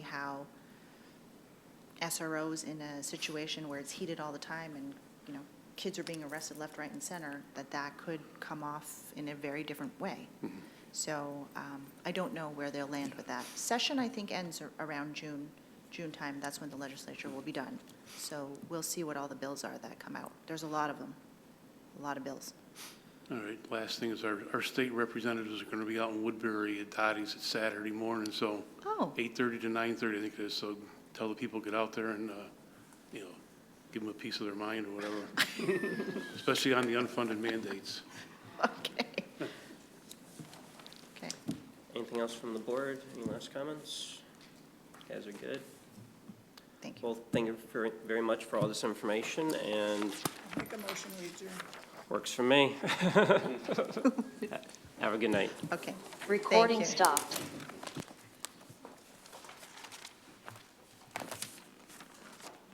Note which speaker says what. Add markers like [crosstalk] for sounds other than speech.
Speaker 1: SROs in a situation where it's heated all the time and, you know, kids are being arrested left, right, and center, that that could come off in a very different way. So um, I don't know where they'll land with that. Session, I think, ends ar- around June, June time. That's when the legislature will be done. So we'll see what all the bills are that come out. There's a lot of them, a lot of bills.
Speaker 2: All right, last thing is our, our state representatives are going to be out in Woodbury at Dottie's at Saturday morning, so
Speaker 1: Oh,
Speaker 2: 8:30 to 9:30, I think it is, so tell the people, get out there and, uh, you know, give them a piece of their mind or whatever, especially on the unfunded mandates.
Speaker 1: [laughs] okay. Okay.
Speaker 3: Anything else from the board? Any last comments? You Guys are good.
Speaker 1: Thank you.
Speaker 3: Well, thank you very, very much for all this information, and
Speaker 4: Make a motion, we adjourn.
Speaker 3: works for me. [laughs] Have a good night.
Speaker 1: Okay. Thank
Speaker 5: Recording
Speaker 1: you.
Speaker 5: stopped.